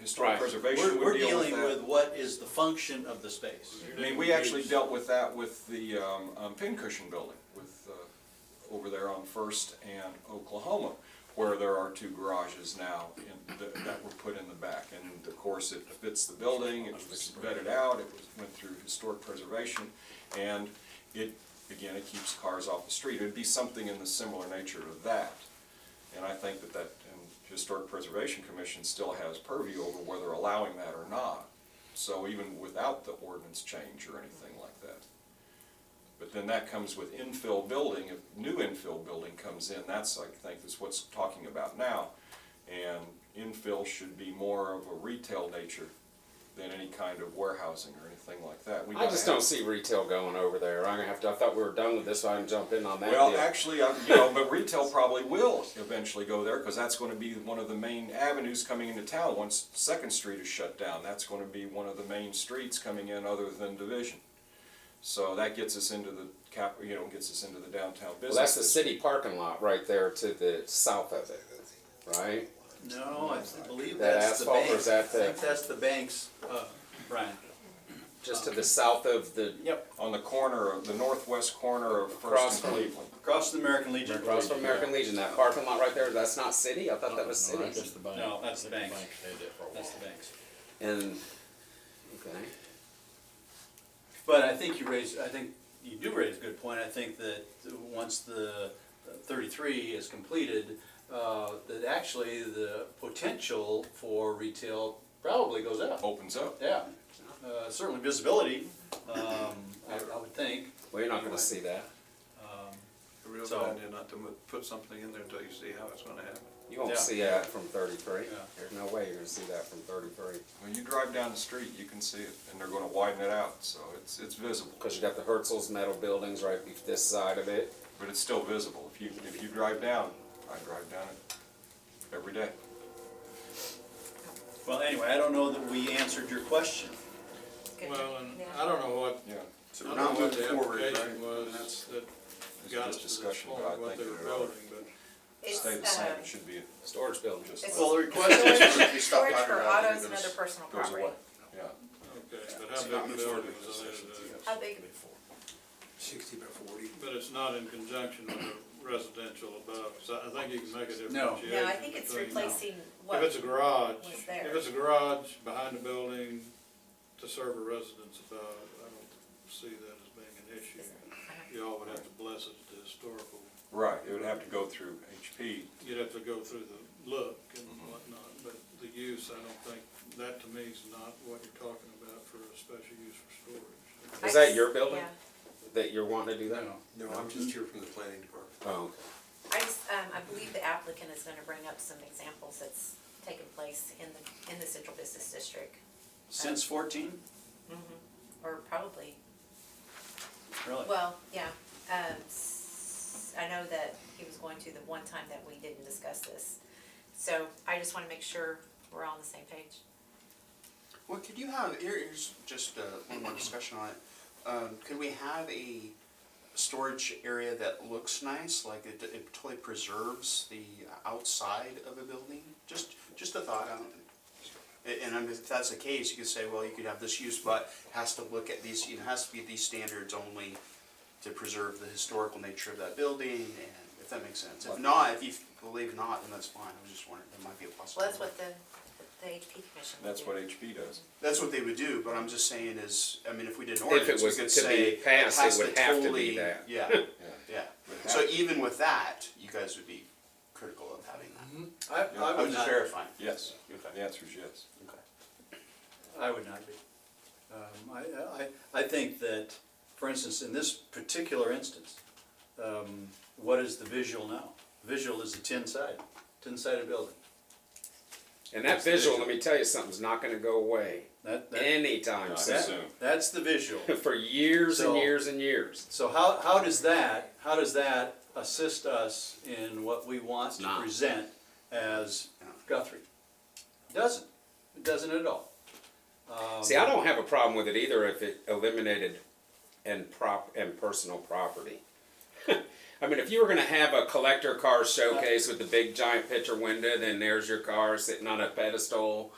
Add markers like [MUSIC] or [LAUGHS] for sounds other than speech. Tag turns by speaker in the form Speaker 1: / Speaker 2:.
Speaker 1: historic
Speaker 2: Right.
Speaker 1: preservation
Speaker 3: We're, we're
Speaker 1: would deal with
Speaker 3: dealing
Speaker 1: that.
Speaker 3: with what is the function of the space.
Speaker 1: I mean, we actually dealt with that with the um, um, pincushion building with, uh, over there on First and Oklahoma, where there are two garages now in- that that were put in the back. And of course, it fits the building, it was vetted out, it was, went through historic preservation, and it, again, it keeps cars off the street. It'd be something in the similar nature of that. And I think that that, and Historic Preservation Commission still has purview over whether allowing that or not. So even without the ordinance change or anything like that. But then that comes with infill building, if new infill building comes in, that's, I think, is what's talking about now. And infill should be more of a retail nature than any kind of warehousing or anything like that. We
Speaker 2: I
Speaker 1: gotta
Speaker 2: just don't
Speaker 1: have-
Speaker 2: see retail going over there. I'm gonna have to, I thought we were done with this, so I can jump in on that
Speaker 1: Well,
Speaker 2: deal.
Speaker 1: actually, I- you know, but retail probably will eventually go there, because that's gonna be one of the main avenues coming into town. Once Second Street is shut down, that's gonna be one of the main streets coming in other than Division. So that gets us into the cap, you know, gets us into the downtown
Speaker 2: Well,
Speaker 1: business.
Speaker 2: that's the city parking lot right there to the south of it, right?
Speaker 3: No, I th- believe
Speaker 2: That
Speaker 3: that's the
Speaker 2: asphalt or
Speaker 3: bank.
Speaker 2: is that the-
Speaker 3: I think that's the banks, uh, Brian.
Speaker 2: Just to the south of the,
Speaker 3: Yep.
Speaker 1: On the corner of, the northwest corner of
Speaker 2: Across
Speaker 1: First
Speaker 2: from-
Speaker 1: and Cleveland.
Speaker 3: Across the American Legion.
Speaker 2: across from American Legion, that parking lot right there, that's not city? I thought that was
Speaker 4: No, that's
Speaker 2: city.
Speaker 4: just the bank.
Speaker 3: No, that's the
Speaker 4: I think
Speaker 3: bank.
Speaker 4: did that for a
Speaker 3: That's the
Speaker 4: while.
Speaker 3: banks.
Speaker 2: And, okay.
Speaker 3: But I think you raise, I think you do raise a good point. I think that once the thirty-three is completed, uh, that actually the potential for retail probably goes up.
Speaker 1: Opens up.
Speaker 3: Yeah, uh, certainly visibility, um, I, I would think.
Speaker 2: Well, you're not gonna see that.
Speaker 3: Um,
Speaker 5: A real
Speaker 3: So-
Speaker 5: good idea not to mu- put something in there until you see how it's gonna happen.
Speaker 2: You won't
Speaker 3: Yeah.
Speaker 2: see that from thirty-three.
Speaker 3: Yeah.
Speaker 2: There's no way you're gonna see that from thirty-three.
Speaker 1: When you drive down the street, you can see it, and they're gonna widen it out, so it's, it's visible.
Speaker 2: Cause you got the Herzl's metal buildings right bef- this side of it.
Speaker 1: But it's still visible. If you, if you drive down, I drive down it every day.
Speaker 3: Well, anyway, I don't know that we answered your question.
Speaker 6: Good.
Speaker 4: Well, and
Speaker 6: Now-
Speaker 4: I don't know what,
Speaker 1: Yeah.
Speaker 4: I
Speaker 5: So
Speaker 4: don't
Speaker 5: we're
Speaker 4: know
Speaker 5: not
Speaker 4: what
Speaker 5: moving
Speaker 4: the
Speaker 5: forward, right?
Speaker 4: application was that
Speaker 1: It's just
Speaker 4: got us to this
Speaker 1: discussion,
Speaker 4: point,
Speaker 1: but I
Speaker 4: what
Speaker 1: think
Speaker 4: they were
Speaker 1: it ought to
Speaker 4: building, but.
Speaker 6: It's,
Speaker 1: Stay the
Speaker 6: uh,
Speaker 1: same, it should be, it
Speaker 2: Storage building.
Speaker 6: It's-
Speaker 3: Well, the request is
Speaker 6: Storage
Speaker 3: if you stop
Speaker 6: storage
Speaker 3: by
Speaker 6: for
Speaker 3: or not,
Speaker 6: autos
Speaker 3: you're
Speaker 6: and
Speaker 3: gonna
Speaker 6: other
Speaker 3: s-
Speaker 6: personal
Speaker 1: goes away,
Speaker 6: property.
Speaker 1: yeah.
Speaker 4: Okay, but how big the building was, I didn't know.
Speaker 6: How big,
Speaker 7: sixty by forty.
Speaker 4: but it's not in conjunction with the residential above, so I think you can make a differentiation.
Speaker 3: No.
Speaker 6: no, I think it's
Speaker 4: between-
Speaker 6: replacing
Speaker 4: uh, If
Speaker 6: what,
Speaker 4: it's a garage,
Speaker 6: was there.
Speaker 4: if it's a garage behind the building to serve a residence above, I don't see that as being an issue. Y'all would have to bless it to historical,
Speaker 1: Right, it would have to go through HP.
Speaker 4: you'd have to go through the look and whatnot, but the use, I don't think, that to me is not what you're talking about for a special use for storage.
Speaker 2: Is
Speaker 6: I
Speaker 2: that
Speaker 6: just-
Speaker 2: your building
Speaker 6: yeah.
Speaker 2: that you're wanting to do that?
Speaker 3: No.
Speaker 7: No, I'm just here from the planning department.
Speaker 2: Oh, okay.
Speaker 6: I just, um, I believe the applicant is gonna bring up some examples that's taken place in the, in the central business district,
Speaker 3: Since fourteen,
Speaker 6: or probably,
Speaker 3: really?
Speaker 6: well, yeah. Um, s- I know that he was going to the one time that we didn't discuss this, so I just wanna make sure we're all on the same page.
Speaker 8: Well, could you have, here- here's just uh, one more discussion on it. Um, Could we have a storage area that looks nice, like it it totally preserves the outside of a building? Just, just a thought, I don't, and- and I'm- if that's the case, you could say, well, you could have this use, but has to look at these, you know, has to be these standards only to preserve the historical nature of that building, and if that makes sense. If not, if you believe not, then that's fine, I was just wondering, that might be a
Speaker 6: Well,
Speaker 8: possibility.
Speaker 6: that's what the, the HP commission. would
Speaker 1: That's
Speaker 6: do.
Speaker 1: what HP does.
Speaker 8: That's what they would do, but I'm just saying is, I mean, if we did an
Speaker 2: If it
Speaker 8: ordinance, we
Speaker 2: was
Speaker 8: could
Speaker 2: to be
Speaker 8: say.
Speaker 2: passed, it
Speaker 8: has
Speaker 2: would have to be
Speaker 8: totally-
Speaker 2: that. [LAUGHS]
Speaker 8: Yeah, yeah.
Speaker 1: Would
Speaker 8: So
Speaker 1: have-
Speaker 8: even with that, you guys would be critical of having that.
Speaker 3: I, I
Speaker 8: I'm
Speaker 3: would
Speaker 8: just
Speaker 3: not,
Speaker 8: verifying.
Speaker 1: Yes,
Speaker 8: Okay.
Speaker 1: the answer is yes.
Speaker 8: Okay.
Speaker 3: I would not be. Um, I, I, I think that, for instance, in this particular instance, um, what is the visual now? Visual is a tin side, tin sided building.
Speaker 2: And that visual, let me tell you something's not going to go away
Speaker 3: That, that,
Speaker 2: anytime
Speaker 1: Not
Speaker 2: soon.
Speaker 1: soon.
Speaker 3: that's the visual.
Speaker 2: [LAUGHS] For years and
Speaker 3: So-
Speaker 2: years and years.
Speaker 3: So how, how does that, how does that assist us in what we want to
Speaker 2: Not.
Speaker 3: present as Guthrie? Doesn't, it doesn't at all. Um,
Speaker 2: See, I don't have a problem with it either if it eliminated and prop and personal property. [LAUGHS] I mean, if you were going to have a collector car showcase with the big giant picture window, then there's your car sitting on a pedestal.